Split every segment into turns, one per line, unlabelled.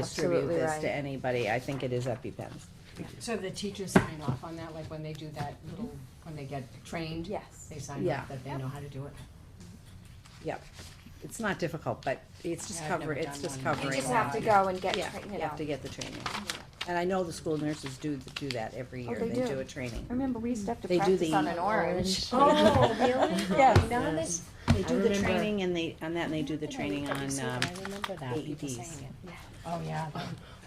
distribute
Absolutely
this
right.
to anybody, I think it is EpiPens.
So the teachers sign off on that, like when they do that little, when they get trained?
Yes.
They sign
Yeah.
off that they know how to do it?
Yep, it's not difficult, but it's just
Yeah, I've
cover,
never
it's
done
just
one. You
covering.
You just
it
have to
all.
go and get,
Yeah,
tra- you
you
know.
have to get the training. And I know the school nurses do, do that every
Oh,
year,
they
they
do.
do a training.
I remember we used to have to
They do
practice
the
on an orange.
Oh,
really?
Yeah.
None of this?
They do the
remember-
training and they, on that, and they do the
I
training
looked up
on,
to see
um, E
it, I remember that, people
AEDs.
saying it. Oh, yeah.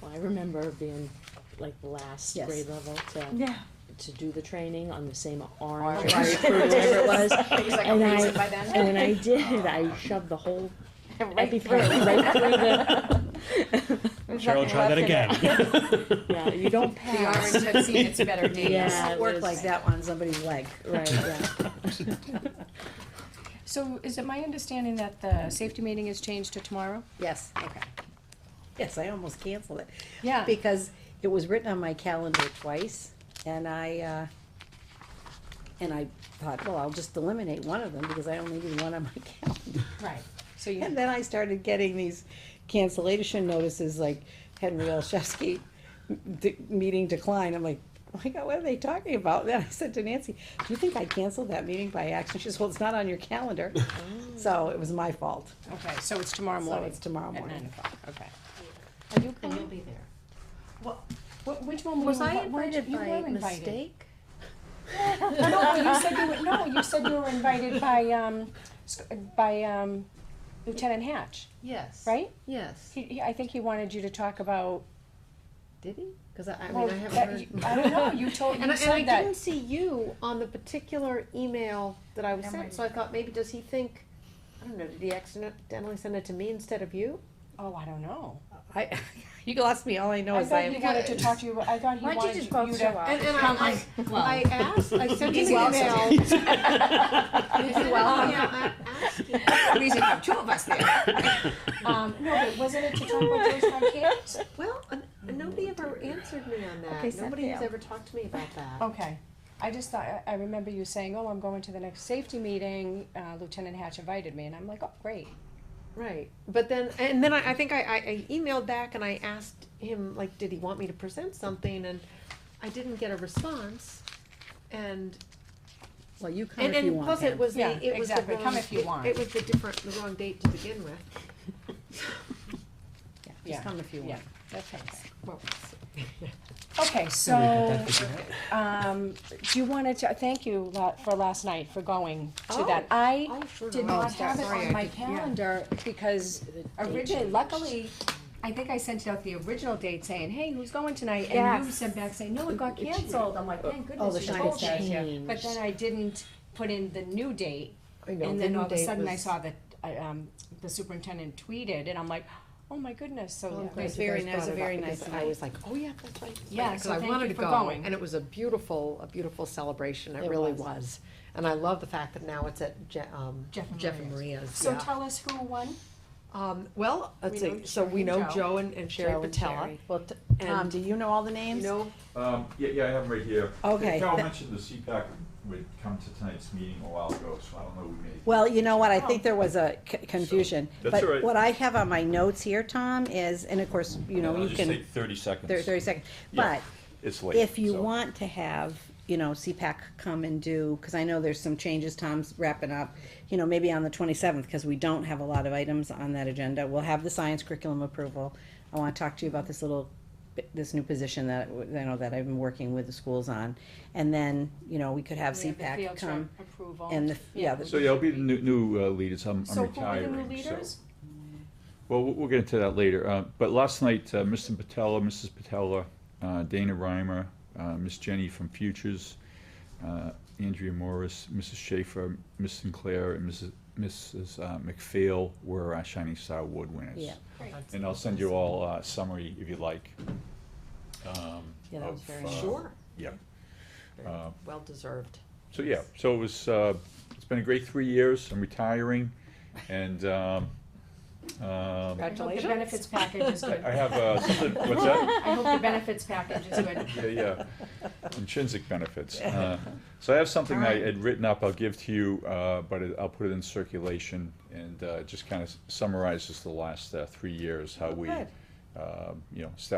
Well, I remember being like the last
Yes.
grade level to,
Yeah.
to do the training on the same orange.
Orange.
Whatever it was.
It was like a
And I-
reason by then.
And when I did, I shoved the whole
Right
epi
through.
right through the,
There's
Cheryl,
nothing
try that
left in it.
again.
yeah, you don't
The
pass.
orange had seen its better days.
Yeah,
It
it
worked
was-
like that on somebody's leg.
Right, yeah.
So is it my understanding that the safety meeting is changed to tomorrow?
Yes,
Okay.
yes, I almost canceled it.
Yeah.
Because it was written on my calendar twice, and I, uh, and I thought, well, I'll just eliminate one of them, because I only need one on my calendar.
Right, so you,
And then I started getting these cancellation notices, like Henry Olszewski, d- meeting declined, I'm like, oh my God, what are they talking about? Then I said to Nancy, do you think I canceled that meeting by accident? She says, well, it's not on your calendar, so it was my fault,
okay, so it's tomorrow
so
morning?
it's tomorrow
At nine
morning.
o'clock, okay. Are you coming? you'll be there. Well, wh- which one were you?
Was I
invi- weren't you-
invited
you
by
were invited.
mistake?
No, you said you were, no, you said you were invited by, um, s- by, um, Lieutenant Hatch,
Yes.
right?
Yes.
He, he, I think he wanted you to talk about,
Did he? Because I, I mean,
well,
I
that-
haven't
you-
heard.
I don't know, you told,
And I,
you
and I
said that.
didn't see you on the particular email that I was sent, so I thought maybe, does he think, I don't know, did he accidentally send it to me instead of you?
Oh, I don't know.
I, you lost me, all I know
I
is I.
thought he wanted to talk to you, I thought he
Why don't you
wanted you
just
to.
both show up?
And, and I, I, I asked, I sent him an email.
You're
Um,
welcome.
yeah, I asked you.
We should have two of us there. Um, no, but wasn't it to talk about Georgetown kids?
Well, uh, nobody ever answered me on
Okay,
that.
so
Nobody has
fail.
ever talked to me about that.
Okay, I just thought, I, I remember you saying, oh, I'm going to the next safety meeting, uh, Lieutenant Hatch invited me, and I'm like, oh, great.
Right, but then, and then I, I think I, I I emailed back and I asked him, like, did he want me to present something, and I didn't get a response, and,
Well, you come
and,
if you
and
want.
plus it
Pam.
was
Yeah,
the, it was the
exactly,
wrong.
come if you
it-
want.
It was the different, the wrong date to begin with.
Yeah,
Yeah,
Just come if you
yeah.
want.
Okay.
Well,
Okay, so, um, do you wanna, t- thank you la- for last night, for going to that. I
Oh, sure.
did
no,
not
I'm
have it
sorry,
on
I
my
did- yeah.
calendar, because originally, luckily, I think I sent out the original date saying, hey, who's going tonight? And you
Yes.
sent back saying, no, it got canceled. I'm like, thank
Oh,
goodness
the
you
shiny
told me.
stars, yeah.
But then I didn't put in the new date,
I know,
and then
the
all of a
date
sudden I
was-
saw that, I, um, the superintendent tweeted, and I'm like, oh my goodness,
Well, I'm
so.
was
glad you guys
very nice- it was
brought
a very
up, because
nice
I
night.
was like, oh, yeah, that's right. that's
Yeah,
right," 'cause
so
I
thank
wanted
you
to
for
go,
going.
And it was a beautiful, a beautiful celebration, it
It
really
was.
was. And I love the fact that now it's at Je- um,
Jeff and
Jeff and
Maria's.
Maria's,
So
yeah.
tell us who won.
Um, well, let's
We
see,
know
so we
Sherry and
know
Joe.
Joe and and Sherry
Joe and
Patella.
Sherry.
Well, t-
Tom,
And,
do you know all the
you
names?
know,
Um, yeah, yeah, I have them right here.
Okay.
Carol
Tha-
mentioned the CPAC would come to tonight's meeting a while ago, so I don't know who made it.
Well, you know what, I
Oh.
think there was a c- confusion.
That's all
But
right.
what I have on my notes here, Tom, is, and of course, you know,
I'll
you
just
can.
take thirty seconds.
thir- Thirty seconds,
Yeah,
but
It's late.
if you
so-
want to have, you know, CPAC come and do, because I know there's some changes, Tom's wrapping up, you know, maybe on the twenty-seventh, because we don't have a lot of items on that agenda, we'll have the science curriculum approval. I want to talk to you about this little, bit- this new position that, w- you know, that I've been working with the schools on. And then, you know, we could have
We have the
CPAC
field trip
come
Approval.
and the, yeah, the
So, yeah, I'll be the new, new uh, leaders, I'm I'm
So who were the
retiring,
new
so-
leaders?
Well, we'll we'll get into that later, uh, but last night, uh, Mr. Patella, Mrs. Patella, uh, Dana Reimer, uh, Miss Jenny from Futures, uh, Andrea Morris, Mrs. Schaefer, Miss Sinclair, and Mrs. Mrs. uh, McPhail were our Shining Star Award winners.
Yeah.
And I'll send you all a summary if you like.
Yeah, that was very
nice.
sure,
Yeah.
well deserved.
So, yeah, so it was, uh, it's been a great three years, I'm retiring, and, um,
I hope
um,
the
Congratulations.
benefits package is
I
good.
have, uh, something- what's that?
I hope the benefits package is good.
Yeah, yeah, intrinsic benefits. Uh, So I have something I had written up, I'll give to you, uh, but it- I'll put it in circulation, and uh, it just kind of summarizes the last uh, three years, how we
Oh, good.
uh, you know, staff